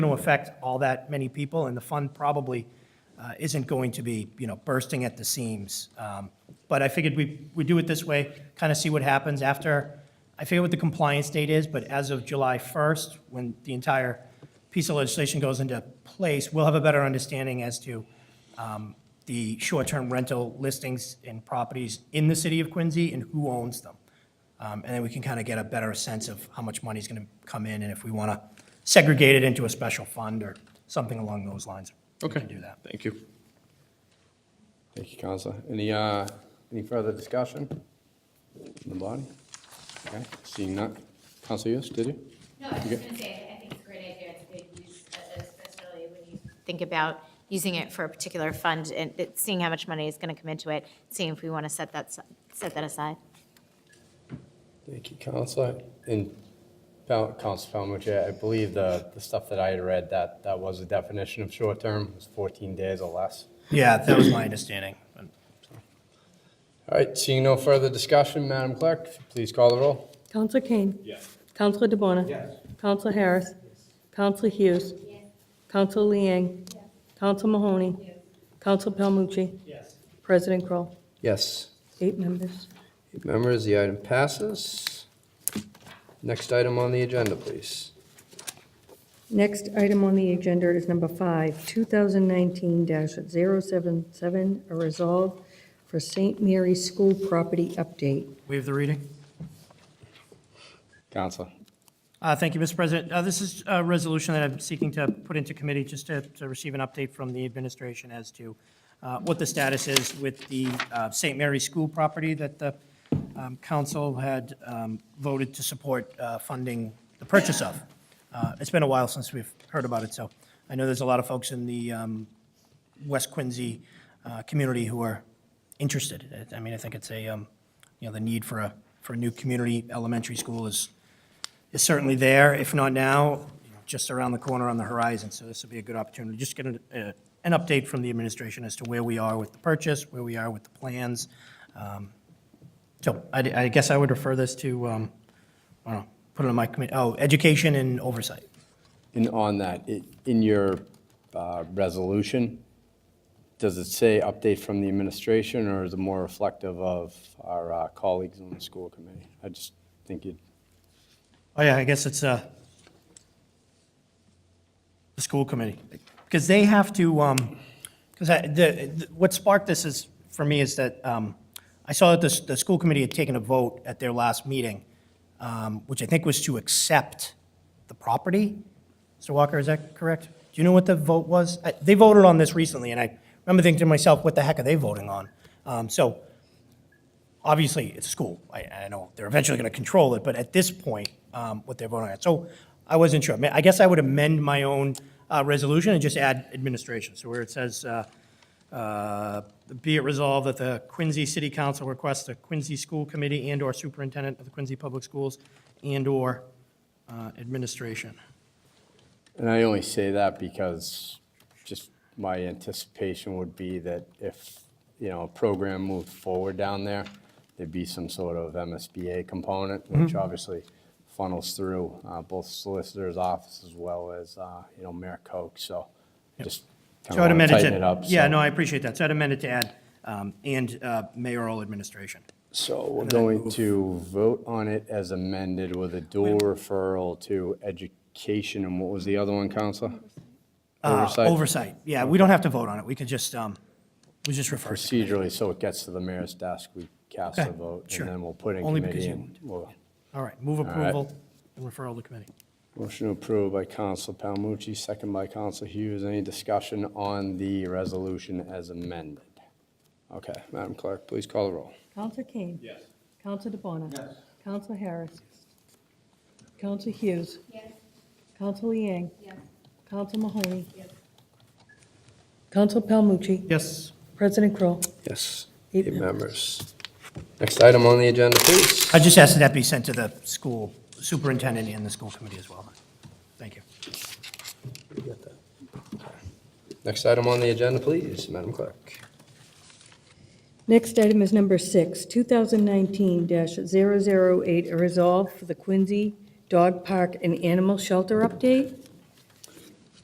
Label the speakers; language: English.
Speaker 1: going to affect all that many people, and the fund probably uh, isn't going to be, you know, bursting at the seams. Um, But I figured we, we do it this way, kind of see what happens after, I figure what the compliance date is, but as of July 1st, when the entire piece of legislation goes into place, we'll have a better understanding as to um, the short-term rental listings and properties in the city of Quincy and who owns them. Um, And then we can kind of get a better sense of how much money's going to come in and if we want to segregate it into a special fund or something along those lines. We
Speaker 2: Okay.
Speaker 1: can do that.
Speaker 2: Thank you.
Speaker 3: Thank you, Counselor. Any, uh, any further discussion in the body? Okay, seeing none. Counselor Yes, did you?
Speaker 4: No, I was
Speaker 3: Okay.
Speaker 4: just gonna say, I think it's a great idea to use, especially when you think about using it for a particular fund and it- seeing how much money is gonna come into it, seeing if we wanna set that, si- set that aside.
Speaker 3: Thank you, Counselor. And Fel- Counselor Calmucci, I believe the, the stuff that I had read, that, that was the definition of short-term, was 14 days or less.
Speaker 1: Yeah, that was my understanding.
Speaker 3: All right, seeing no further discussion, Madam Clerk, if you please call the roll.
Speaker 5: Counselor Kane. Yes. Counselor DeBona. Yes. Counselor Harris. Counselor Hughes. Yes. Counselor Liang. Yes. Counselor Mahoney. Yes. Counselor Palmucci.
Speaker 1: Yes.
Speaker 5: President Kroll.
Speaker 3: Yes.
Speaker 5: Eight members.
Speaker 3: Eight members, the item passes. Next item on the agenda, please.
Speaker 5: Next item on the agenda is number five, 2019-077, a resolve for St. Mary's School property update.
Speaker 1: Waive the reading.
Speaker 3: Counselor.
Speaker 1: Uh, Thank you, Mr. President. Uh, This is a resolution that I'm seeking to put into committee just to to receive an update from the administration as to uh, what the status is with the uh, St. Mary's School property that the um, council had um, voted to support uh, funding the purchase of. Uh, It's been a while since we've heard about it, so I know there's a lot of folks in the um, West Quincy uh, community who are interested. I I mean, I think it's a, um, you know, the need for a, for a new community elementary school is is certainly there, if not now, you know, just around the corner on the horizon. So this will be a good opportunity, just get an, uh, an update from the administration as to where we are with the purchase, where we are with the plans. Um, So I, I guess I would refer this to, um, I don't know, put it on my committee, oh, education and oversight.
Speaker 3: And on that, i- in your uh, resolution, does it say update from the administration, or is it more reflective of our uh, colleagues on the school committee? I just think you'd,
Speaker 1: Oh, yeah, I guess it's, uh, the school committee, because they have to, um, because I, the, the- what sparked this is, for me, is that, um, I saw that the, s- the school committee had taken a vote at their last meeting, um, which I think was to accept the property. Mr. Walker, is that correct? Do you know what the vote was? I- They voted on this recently, and I remember thinking to myself, what the heck are they voting on? Um, so, obviously, it's a school. I, I know they're eventually going to control it, but at this point, um, what they're voting on. So I wasn't sure. I mean, I guess I would amend my own uh, resolution and just add administration. So where it says, uh, uh, be it resolved that the Quincy City Council requests the Quincy School Committee and/or Superintendent of the Quincy Public Schools and/or uh, administration.
Speaker 3: and I only say that because just my anticipation would be that if, you know, a program moved forward down there, there'd be some sort of MSBA component,
Speaker 1: Mm-hmm.
Speaker 3: which obviously funnels through uh, both solicitor's office as well as, uh, you know, Mayor Koch, so just
Speaker 1: So
Speaker 3: kind
Speaker 1: I'd
Speaker 3: of want
Speaker 1: amend
Speaker 3: to
Speaker 1: it to-
Speaker 3: tighten it up.
Speaker 1: Yeah,
Speaker 3: so-
Speaker 1: no, I appreciate that. So I'd amend it to add, um, and uh, mayoral administration.
Speaker 3: So we're going to vote on it as amended with a dual referral to education, and what was the other one, Counselor?
Speaker 1: Uh,
Speaker 3: Oversight
Speaker 1: Oversight, yeah, we don't have to vote on it, we could just, um, we just refer to it.
Speaker 3: procedurally, so it gets to the mayor's desk, we cast
Speaker 1: Okay,
Speaker 3: a vote,
Speaker 1: sure.
Speaker 3: and then we'll put in
Speaker 1: Only because
Speaker 3: committee.
Speaker 1: you
Speaker 3: and we'll-
Speaker 1: All right, move
Speaker 3: right.
Speaker 1: approval and referral to committee.
Speaker 3: Motion approved by Counselor Palmucci, second by Counselor Hughes. Any discussion on the resolution as amended? Okay, Madam Clerk, please call the roll.
Speaker 5: Counselor Kane. Yes. Counselor DeBona. Yes. Counselor Harris. Counselor Hughes.
Speaker 4: Yes.
Speaker 5: Counselor Liang.
Speaker 4: Yes.
Speaker 5: Council Mahoney. Council Palmucci.
Speaker 1: Yes.
Speaker 5: President Kroll.
Speaker 3: Yes,
Speaker 5: Eight
Speaker 3: eight members. Next item on the agenda, please.
Speaker 1: I just asked that that be sent to the school superintendent and the school committee as well. Thank you.
Speaker 3: Next item on the agenda, please, Madam Clerk.
Speaker 5: Next item is number six, 2019-008, a resolve for the Quincy Dog Park and Animal Shelter update.